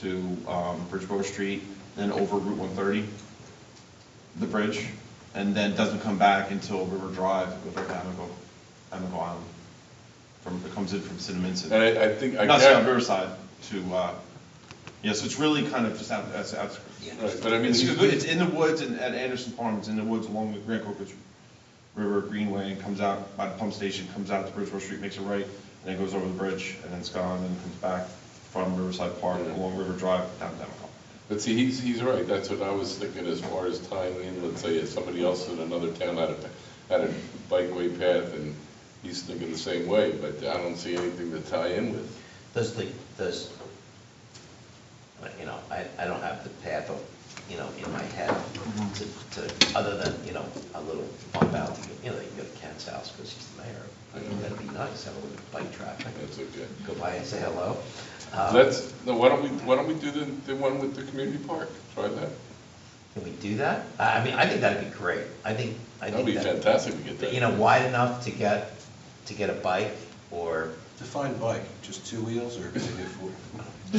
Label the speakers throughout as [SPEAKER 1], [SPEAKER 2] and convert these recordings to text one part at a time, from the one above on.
[SPEAKER 1] to um, Bridgeboro Street, then over Route 130, the bridge, and then doesn't come back until River Drive with over Amico, Amico Island. From, it comes in from Cinnamon to.
[SPEAKER 2] And I, I think, I
[SPEAKER 1] Not Sound
[SPEAKER 2] can't,
[SPEAKER 1] Riverside to, uh, yeah, so it's really kind of just out, that's outskirts.
[SPEAKER 2] Right, but I mean,
[SPEAKER 1] It's,
[SPEAKER 2] he's-
[SPEAKER 1] it's in the woods and at Anderson Farm, it's in the woods along the Grand Corpus River Greenway and comes out by the pump station, comes out to Bridgeport Street, makes a right, and then goes over the bridge and then it's gone and comes back from Riverside Park along River Drive down Demicon.
[SPEAKER 2] but see, he's, he's right, that's what I was thinking as far as tying in, let's say, if somebody else in another town had a, had a bikeway path, and he's thinking the same way, but I don't see anything to tie in with.
[SPEAKER 3] Does the, does, you know, I, I don't have the path of, you know, in my head to, to, other than, you know, a little bump out, you know, you go to Ken's house because he's the mayor. I mean, that'd be nice, have a little bike traffic,
[SPEAKER 2] That's okay.
[SPEAKER 3] go by and say hello. Uh,
[SPEAKER 2] Let's, no, why don't we, why don't we do the, the one with the community park? Try that.
[SPEAKER 3] Can we do that? I I mean, I think that'd be great. I think, I
[SPEAKER 2] That'd
[SPEAKER 3] think
[SPEAKER 2] be
[SPEAKER 3] that,
[SPEAKER 2] fantastic to get that.
[SPEAKER 3] you know, wide enough to get, to get a bike or,
[SPEAKER 4] Define bike, just two wheels or maybe four?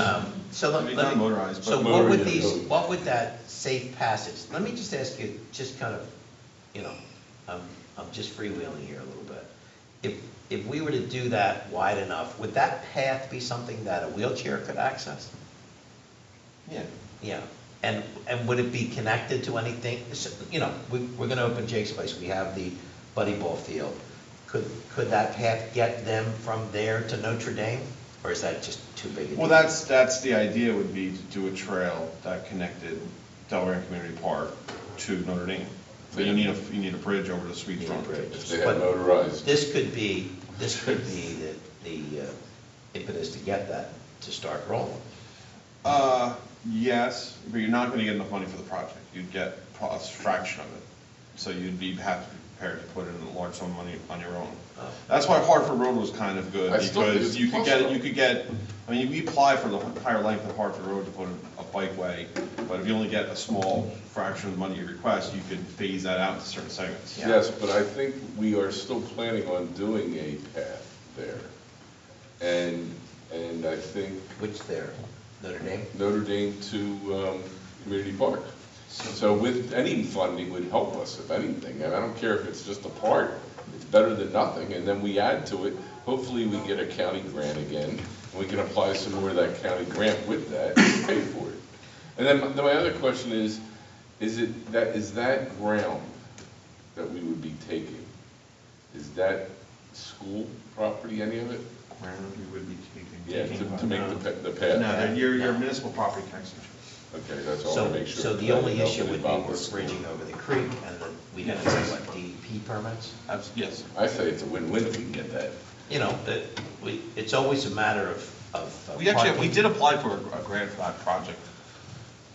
[SPEAKER 3] um, so let
[SPEAKER 1] It'd
[SPEAKER 3] let me.
[SPEAKER 1] be non-motorized, but
[SPEAKER 3] So what would
[SPEAKER 2] motorized.
[SPEAKER 3] these, what would that safe passage, let me just ask you, just kind of, you know, I'm, I'm just freewheeling here a little bit. If, if we were to do that wide enough, would that path be something that a wheelchair could access?
[SPEAKER 1] Yeah.
[SPEAKER 3] Yeah, and, and would it be connected to anything, So, you know, we, we're gonna open Jake's place, we have the buddy ball field. Could, could that path get them from there to Notre Dame, or is that just too big a deal?
[SPEAKER 1] Well, that's, that's the idea would be to do a trail that connected Delran Community Park to Notre Dame. But you need a, you need a bridge over the Sweet
[SPEAKER 3] Yeah,
[SPEAKER 1] Front
[SPEAKER 3] bridge.
[SPEAKER 1] Bridge.
[SPEAKER 2] If they had
[SPEAKER 3] But-
[SPEAKER 2] motorized.
[SPEAKER 3] This could be, this could be the, the uh, impetus to get that to start rolling.
[SPEAKER 1] Uh, yes, but you're not gonna get enough money for the project. You'd get pro- a fraction of it. So you'd be, have to be prepared to put in a large sum of money on your own.
[SPEAKER 3] Oh.
[SPEAKER 1] That's why Hartford Road was kind of good,
[SPEAKER 2] I still think
[SPEAKER 1] because
[SPEAKER 2] it's
[SPEAKER 1] you could get,
[SPEAKER 2] possible.
[SPEAKER 1] you could get, I mean, we apply for the higher length of Hartford Road to put in a bikeway, but if you only get a small fraction of the money you request, you could phase that out into certain segments.
[SPEAKER 3] Yeah.
[SPEAKER 2] Yes, but I think we are still planning on doing a path there. And, and I think
[SPEAKER 3] Which there, Notre Dame?
[SPEAKER 2] Notre Dame to um, Community Park. So with, any funding would help us, if anything, and I don't care if it's just a part, it's better than nothing, and then we add to it, hopefully we get a county grant again, and we can apply some more of that county grant with that, and pay for it. And then my- then my other question is, is it, that, is that ground that we would be taking, is that school property, any of it? Yeah, to to make the pa- the path?
[SPEAKER 1] No, they're- you're, you're
[SPEAKER 3] No.
[SPEAKER 1] municipal property taxation.
[SPEAKER 2] Okay, that's all I
[SPEAKER 3] So,
[SPEAKER 2] wanna make sure.
[SPEAKER 3] so the
[SPEAKER 2] that
[SPEAKER 3] only
[SPEAKER 2] nothing
[SPEAKER 3] issue would be
[SPEAKER 2] involves the
[SPEAKER 3] with
[SPEAKER 2] school.
[SPEAKER 3] bridging over the creek and the, we have to say what, DEP permits?
[SPEAKER 1] Abs- Yes.
[SPEAKER 2] I say it's a win-win if we can get that.
[SPEAKER 3] You know, that, we, it's always a matter of, of. uh,
[SPEAKER 1] We actually, we
[SPEAKER 3] parking.
[SPEAKER 1] did apply for a grant for that project.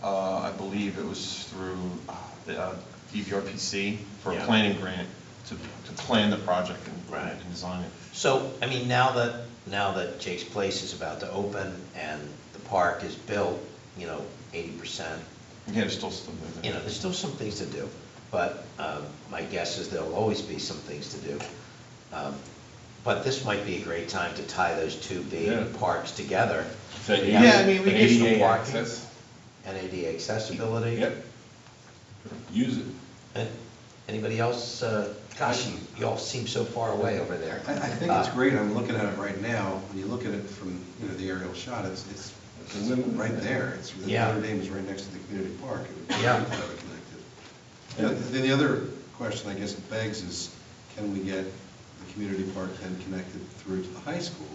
[SPEAKER 1] Uh, I believe it was through uh, the uh, DVRPC for a
[SPEAKER 3] Yeah.
[SPEAKER 1] planning grant to, to plan the project and,
[SPEAKER 3] Right.
[SPEAKER 1] and design it.
[SPEAKER 3] So, I mean, now that, now that Jake's Place is about to open and the park is built, you know, eighty percent,
[SPEAKER 1] Again, it's still something.
[SPEAKER 3] you know, there's still some things to do, but um, my guess is there'll always be some things to do. Um, But this might be a great time to tie those two
[SPEAKER 2] Yeah.
[SPEAKER 3] big parks together.
[SPEAKER 1] Yeah, I mean, we
[SPEAKER 2] The
[SPEAKER 1] could-
[SPEAKER 2] ADA access,
[SPEAKER 3] And ADA accessibility.
[SPEAKER 2] yep. Use it.
[SPEAKER 3] And Anybody else? uh, Gosh, you, you all seem so far away over there.
[SPEAKER 2] Oh,
[SPEAKER 4] I, I think it's great, I'm looking at it right now, when you look at it from, you know, the aerial shot, it's, it's it's right there, it's, the
[SPEAKER 3] Yeah.
[SPEAKER 4] Notre Dame is right next to the community park. It would be
[SPEAKER 3] Yeah.
[SPEAKER 4] great to have it connected. And Then the other question, I guess, begs is, can we get the community park then connected through to the high school,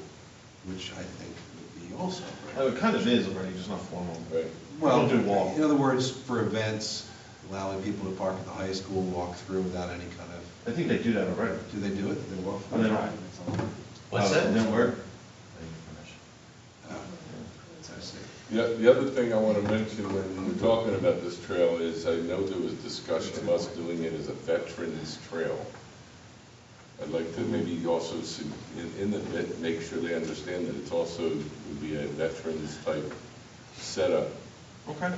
[SPEAKER 4] which I think would be also. great.
[SPEAKER 1] Oh, it kind of is already, just not formal.
[SPEAKER 2] Right.
[SPEAKER 4] Well,
[SPEAKER 1] We'll do walk.
[SPEAKER 4] in other words, for events, allowing people to park at the high school, walk through without any kind of,
[SPEAKER 1] I think they do that already.
[SPEAKER 4] do they do it? They walk?
[SPEAKER 1] Oh, they don't.
[SPEAKER 3] What's
[SPEAKER 1] Uh,
[SPEAKER 3] that?
[SPEAKER 1] Then we're,
[SPEAKER 4] Oh, I see.
[SPEAKER 2] The, the other thing I want to mention when we're talking about this trail is, I know there was discussion of us doing it as a veterans' trail. I'd like to maybe also, see- in, in the, vet- make sure they understand that it's also, would be a veterans type setup.
[SPEAKER 1] okay.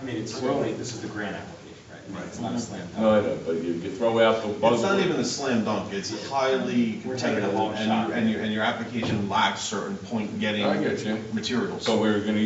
[SPEAKER 5] I mean, it's, we're only, this is the grant application, right? I mean, It's not a slam
[SPEAKER 2] Mm-hmm. No, I
[SPEAKER 5] dunk.
[SPEAKER 2] know, but you could throw out the buzzword.
[SPEAKER 1] It's not even a slam dunk, it's highly
[SPEAKER 5] We're taking
[SPEAKER 1] competitive,
[SPEAKER 5] a long
[SPEAKER 1] and,
[SPEAKER 5] shot.
[SPEAKER 1] you- and your, and your application lacks certain point getting
[SPEAKER 2] I get you.
[SPEAKER 1] materials.
[SPEAKER 2] So we're going to